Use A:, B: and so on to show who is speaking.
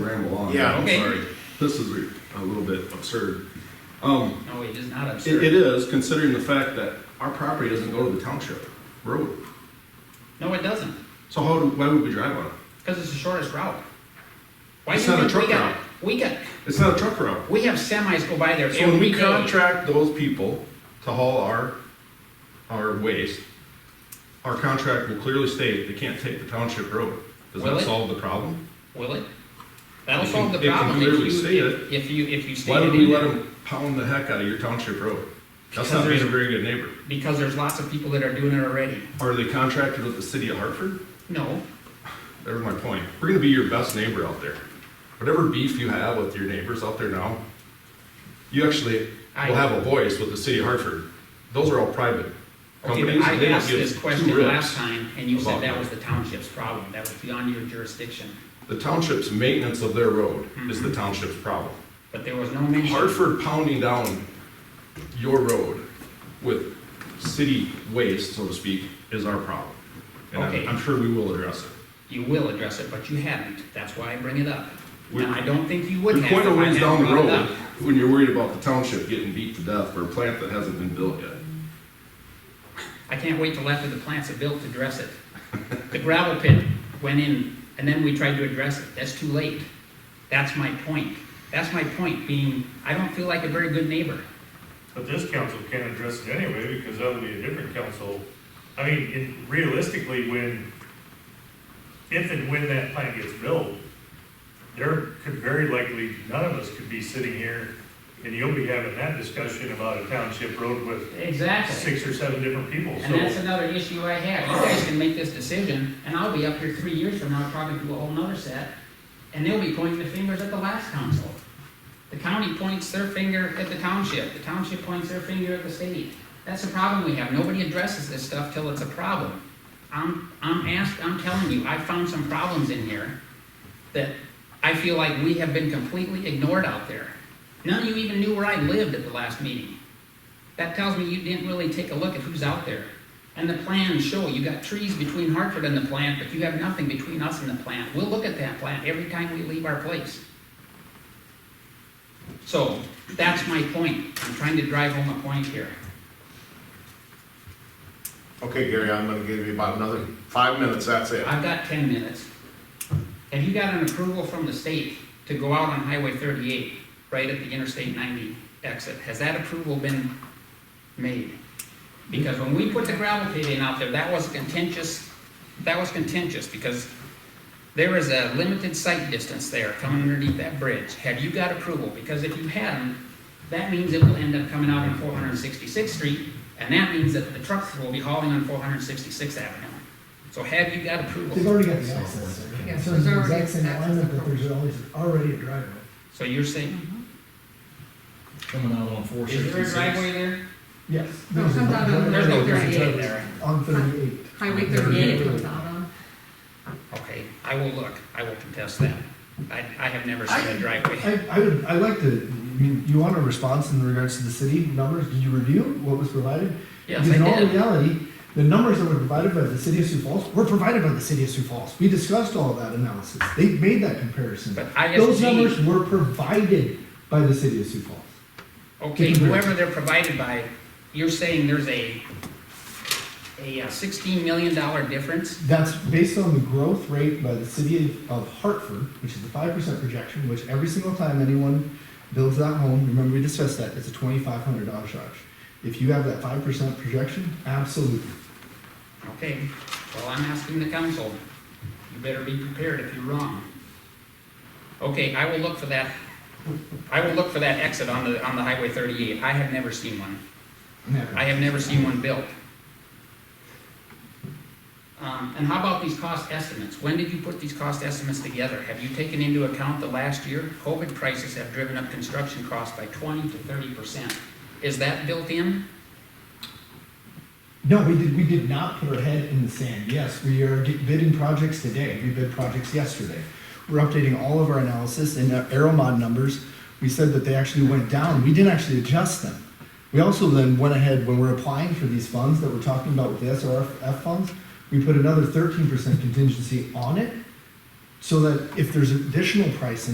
A: ran along.
B: Yeah, I'm
A: I'm
C: Okay.
B: sorry.
A: This is a- a little bit absurd. Um,
C: No, it is not
A: it,
C: absurd.
A: it is considering the fact that our property doesn't go to the township road.
C: No, it doesn't,
A: So how, do- why would we drive on it?
C: because it's the shortest route. Why
A: It's
C: do you
A: not a
C: think we
A: truck
C: got-
A: route.
C: We got,
A: It's not a truck route.
C: we have semis go by there
A: So when
C: every
A: we
C: day.
A: contract those people to haul our, our waste, our contract will clearly state they can't take the township road. Does
C: Will
A: that
C: it?
A: solve the problem?
C: Will it? That'll
A: It can-
C: solve the
A: it can
C: problem if
A: clearly
C: you,
A: state
C: if- if you, if you state
A: Why
C: it
A: would we
C: in
A: let
C: there.
A: them pound the heck out of your township road? That's
C: Because
A: not being a
C: there's-
A: very good neighbor.
C: Because there's lots of people that are doing it already.
A: Are they contracted with the city of Hartford?
C: No,
A: There's my point. We're gonna be your best neighbor out there. Whatever beef you have with your neighbors out there now, you actually
C: I-
A: will have a voice with the city of Hartford. Those are all private
C: okay,
A: companies.
C: but
A: and
C: I
A: they don't
C: asked
A: give
C: this
A: two
C: question
A: rips.
C: last time, and you said
A: about
C: that
A: that.
C: was the township's problem, that was beyond your jurisdiction.
A: The township's maintenance of their road is
C: Mm-hmm.
A: the township's problem.
C: But there was no mention.
A: Hartford pounding down your road with city waste, so to speak, is our problem. And I'm-
C: Okay.
A: I'm sure we will address it.
C: You will address it, but you haven't. That's why I bring it up.
A: We-
C: Now, I don't think you would
A: You're
C: have.
A: quite a
C: if I
A: ways
C: hadn't
A: down the
C: brought it
A: road
C: up.
A: when you're worried about the township getting beat to death for a plant that hasn't been built yet.
C: I can't wait till after the plants are built to address it. The gravel pit went in, and then we tried to address it. That's too late. That's my point. That's my point, being, I don't feel like a very good neighbor.
D: But this council can't address it anyway, because that would be a different council. I mean, in- realistically, when, if and when that plant gets built, there could very likely, none of us could be sitting here, and you'll be having that discussion about a township road with
C: Exactly.
D: six or seven different people,
C: And that's
D: so.
C: another issue I had. You guys can make this decision, and I'll be up here three years from now talking to a whole nother set, and they'll be pointing the fingers at the last council. The county points their finger at the township, the township points their finger at the city. That's the problem we have, nobody addresses this stuff till it's a problem. I'm, I'm asked, I'm telling you, I found some problems in here that I feel like we have been completely ignored out there. None of you even knew where I lived at the last meeting. That tells me you didn't really take a look at who's out there. And the plans show, you got trees between Hartford and the plant, but you have nothing between us and the plant. We'll look at that plant every time we leave our place. So, that's my point. I'm trying to drive home a point here.
E: Okay, Gary, I'm gonna give you about another five minutes, that's it.
C: I've got ten minutes. Have you got an approval from the state to go out on Highway thirty-eight, right at the Interstate ninety exit? Has that approval been made? Because when we put the gravel pit in out there, that was contentious, that was contentious, because there is a limited sight distance there coming underneath that bridge. Have you got approval? Because if you hadn't, that means it will end up coming out on four hundred and sixty-sixth street, and that means that the trucks will be hauling on four hundred and sixty-sixth avenue. So have you got approval?
F: They've already got the access.
G: Yeah,
F: So
G: there's
F: it's the
G: already
F: exact same
G: access.
F: alignment, but there's always, already a driveway.
C: So you're saying,
H: coming out on four
C: is there a
H: sixty-six.
C: driveway there?
F: Yes.
G: No, it comes out on
C: There's no
G: Highway 38
C: driveway there.
F: On thirty-eight.
G: Highway thirty-eight comes out on.
C: Okay, I will look, I will contest that. I, I have never seen a driveway.
F: I, I would, I like to, I mean, you want a response in regards to the city numbers? Did you review what was provided?
C: Yes,
F: Because in
C: I
F: all
C: did.
F: reality, the numbers that were provided by the city of Sioux Falls were provided by the city of Sioux Falls. We discussed all that analysis. They made that comparison.
C: But
F: Those numbers
C: ISG,
F: were provided by the city of Sioux Falls.
C: okay, whoever they're provided by, you're saying there's a, a uh, sixteen million dollar difference?
F: That's based on the growth rate by the city of Hartford, which is the five percent projection, which every single time anyone builds that home, remember we discussed that, it's a twenty-five hundred dollar charge. If you have that five percent projection, absolutely.
C: Okay, well, I'm asking the council, you better be prepared if you're wrong. Okay, I will look for that, I will look for that exit on the, on the Highway thirty-eight, I have never seen one.
F: Never.
C: I have never seen one built. Um, and how about these cost estimates? When did you put these cost estimates together? Have you taken into account the last year? COVID prices have driven up construction costs by twenty to thirty percent. Is that built in?
F: No, we did, we did not put our head in the sand. Yes, we are di- bidding projects today. We bid projects yesterday. We're updating all of our analysis and our Aeromod numbers. We said that they actually went down. We didn't actually adjust them. We also then went ahead, when we're applying for these funds that we're talking about with the SRF funds, we put another thirteen percent contingency on it so that if there's additional pricing.